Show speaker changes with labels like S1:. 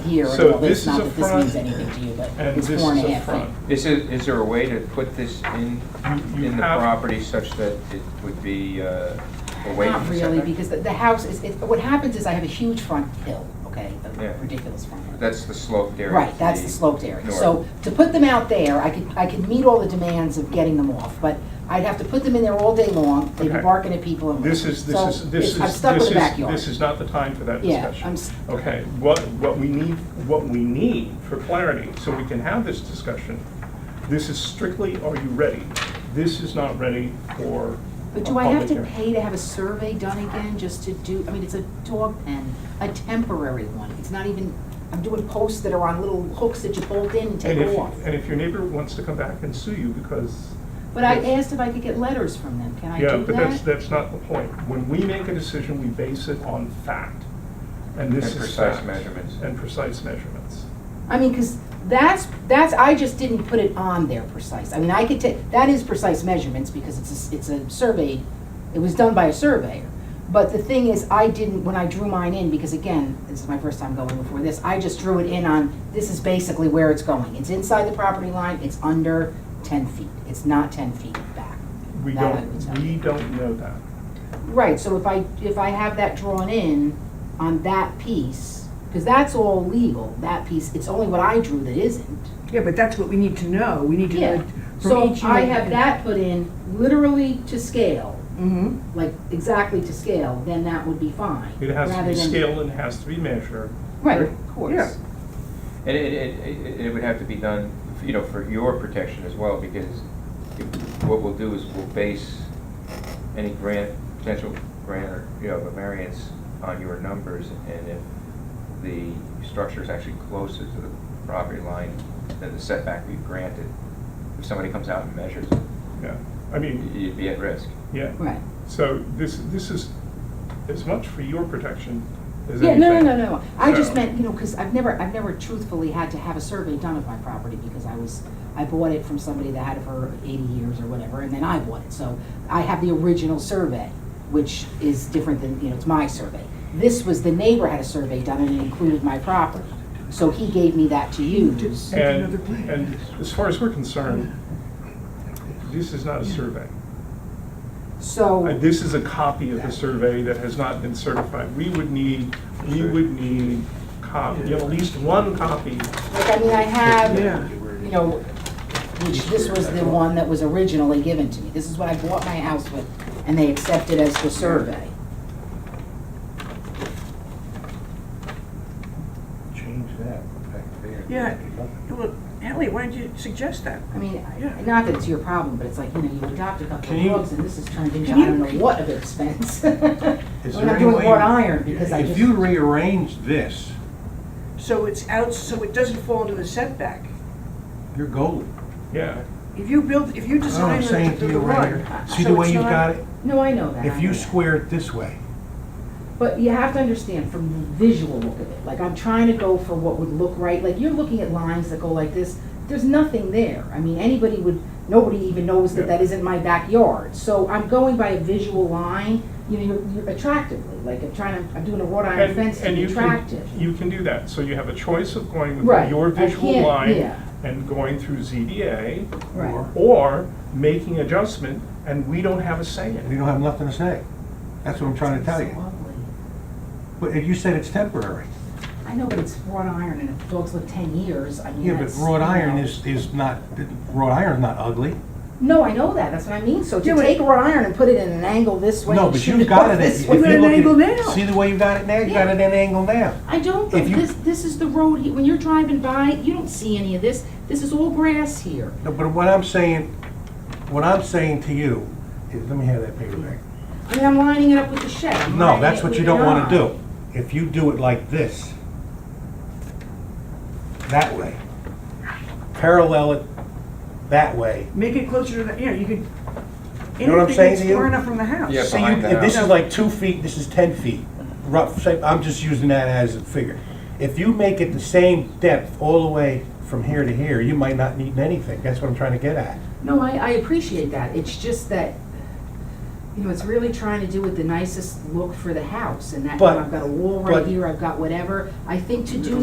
S1: year
S2: So
S1: ago, but
S2: this
S1: it's
S2: is
S1: not
S2: a
S1: that this
S2: front,
S1: means anything to you, but
S2: And
S1: it's
S2: this
S1: four and
S2: is
S1: a
S2: a
S1: half
S2: front.
S1: feet.
S3: Is it, is there a way to put this in,
S2: You- you
S3: in the
S2: have-
S3: property such that it would be uh, away from
S1: Not
S3: the
S1: really,
S3: setback?
S1: because the, the house is, it, what happens is I have a huge front hill, okay,
S3: Yeah.
S1: a ridiculous front hill.
S3: That's the sloped area.
S1: Right,
S3: to
S1: that's the sloped area.
S3: north.
S1: So to put them out there, I could, I could meet all the demands of getting them off, but I'd have to put them in there all day long, they'd be
S2: Okay.
S1: barking at people and.
S2: This is,
S1: So
S2: this is, this
S1: it's-
S2: is.
S1: I'm stuck with
S2: this
S1: the
S2: is-
S1: backyard.
S2: This is not the time for that
S1: Yeah,
S2: discussion.
S1: I'm s-
S2: Okay, what, what we need, what we need for clarity, so we can have this discussion, this is strictly, are you ready? This is not ready for a
S1: But do I have
S2: public
S1: to
S2: hearing.
S1: pay to have a survey done again, just to do, I mean, it's a dog pen, a temporary one, it's not even, I'm doing posts that are on little hooks that you bolt in and take
S2: And if,
S1: off.
S2: and if your neighbor wants to come back and sue you because.
S1: But I asked if I could get letters from them, can I do that?
S2: Yeah, but that's, that's not the point. When we make a decision, we base it on fact. And this
S3: And
S2: is
S3: precise
S2: fact.
S3: measurements.
S2: And precise measurements.
S1: I mean, because that's, that's, I just didn't put it on there precise. I mean, I could take, that is precise measurements because it's, a s- it's a survey, it was done by a surveyor. But the thing is, I didn't, when I drew mine in, because again, this is my first time going before this, I just drew it in on, this is basically where it's going. It's inside the property line, it's under ten feet, it's not ten feet back.
S2: We
S1: That I would
S2: don't,
S1: say.
S2: we don't know that.
S1: Right, so if I, if I have that drawn in on that piece, because that's all legal, that piece, it's only what I drew that isn't.
S4: Yeah, but that's what we need to know, we need to
S1: Yeah.
S4: know from
S1: So
S4: each.
S1: I have that put in literally to scale,
S4: Mm-hmm,
S1: like exactly to scale, then that would be fine.
S2: It has to
S1: rather
S2: be
S1: than-
S2: scaled and it has to be measured.
S1: Right, of course.
S4: Yeah.
S3: And it, it, it- it would have to be done, you know, for your protection as well, because if- what we'll do is we'll base any grant, potential grant or, you know, a variance on your numbers, and if the structure is actually closer to the property line than the setback we've granted, if somebody comes out and measures,
S2: Yeah, I mean,
S3: you'd be at risk.
S2: yeah.
S1: Right.
S2: So this, this is as much for your protection as
S1: Yeah,
S2: anything.
S1: no, no, no, no. I just
S2: So-
S1: meant, you know, because I've never, I've never truthfully had to have a survey done of my property because I was, I bought it from somebody that had it for eighty years or whatever, and then I bought it. So I have the original survey, which is different than, you know, it's my survey. This was, the neighbor had a survey done and it included my property. So he gave me that to use.
S4: Make another
S2: And,
S4: plan.
S2: and as far as we're concerned, this is not a survey.
S1: So. Oh.
S2: Uh, This is a copy of the survey that has not been certified. We would need, we would need copy, at least one copy.
S1: Like, I mean, I have,
S4: Yeah.
S1: you know, which this was the one that was originally given to me. This is what I bought my house with, and they accepted as the survey.
S5: Change that back there.
S4: yeah, well, Ellie, why did you suggest that?
S1: I mean, I-
S4: Yeah.
S1: not that it's your problem, but it's like, you know, you adopt a couple
S5: Can
S1: of
S5: you-
S1: dogs, and this has turned into, I
S4: can you-
S1: don't know what of expense.
S5: Is
S1: We're
S5: there
S1: not
S5: any
S1: doing
S5: way-
S1: wrought iron, because I
S5: If you
S1: just,
S5: rearrange this,
S4: So it's out, so it doesn't fall into the setback.
S5: you're golden.
S2: Yeah,
S4: If you build, if you
S5: That's what
S4: design
S5: I'm
S4: the
S5: saying to
S4: the
S5: you right
S4: barn.
S5: here. See the way you've got it?
S1: no, I know that. I
S5: If
S1: know
S5: you
S1: that.
S5: square it this way,
S1: But you have to understand from the visual look of it, like I'm trying to go for what would look right, like you're looking at lines that go like this, there's nothing there. I mean, anybody would, nobody even knows that that isn't my backyard, so I'm going by a visual line, you know, you're- you're attractively, like I'm trying to, I'm doing a wrought iron
S2: And-
S1: fence to
S2: and
S1: be
S2: you can-
S1: attractive.
S2: You can do that, so you have a choice of going
S1: Right,
S2: with your
S1: I
S2: visual
S1: can't-
S2: line
S1: yeah.
S2: and going through ZBA,
S1: Right,
S2: or making adjustment, and we don't have a say in
S5: you
S2: it.
S5: don't have nothing to say. That's what I'm trying to tell
S1: It's
S5: you.
S1: lovely.
S5: But if you said it's temporary,
S1: I know, but it's wrought iron and if dogs live ten years, I mean,
S5: yeah, but
S1: that's,
S5: wrought
S1: you
S5: iron
S1: know.
S5: is, is not, wrought iron's not ugly.
S1: No, I know that, that's what I mean, so
S4: Yeah,
S1: to
S4: but-
S1: take wrought iron and put it in an angle this way
S5: No,
S1: and
S5: but
S1: shoot
S5: you've
S1: it
S5: got
S1: off
S5: it, at-
S1: this
S5: if
S1: way.
S5: you
S4: Put it at
S5: look
S4: an
S5: at-
S4: angle now.
S5: see the way you got it now, you got it at an angle now.
S1: I don't,
S5: If
S1: think
S5: you-
S1: this, this is the road, he- when you're driving by, you don't see any of this, this is all grass here.
S5: No, but what I'm saying, what I'm saying to you is, let me have that paper back.
S1: I mean, I'm lining it up with the shed. I'm lining
S5: No, that's
S1: it
S5: what
S1: with
S5: you
S1: the
S5: don't want to
S1: yard.
S5: do. If you do it like this, that way, parallel it that way.
S4: Make it closer to the, you know, you could,
S5: You know what I'm
S4: anything
S5: saying
S4: that's
S5: to you?
S4: far enough from the house.
S3: Yeah,
S5: See,
S3: behind
S5: you-
S3: the
S5: if this
S3: house.
S5: is like uh, two feet, this is 10 feet, rough shape, I'm just using that as a figure. If you make it the same depth all the way from here to here, you might not need anything. That's what I'm trying to get at.
S1: No, I, I appreciate that, it's just that, you know, it's really trying to do with the nicest look for the house, and that, you know,
S5: But-
S1: I've got a wall right
S5: but-
S1: here, I've got whatever. I think to do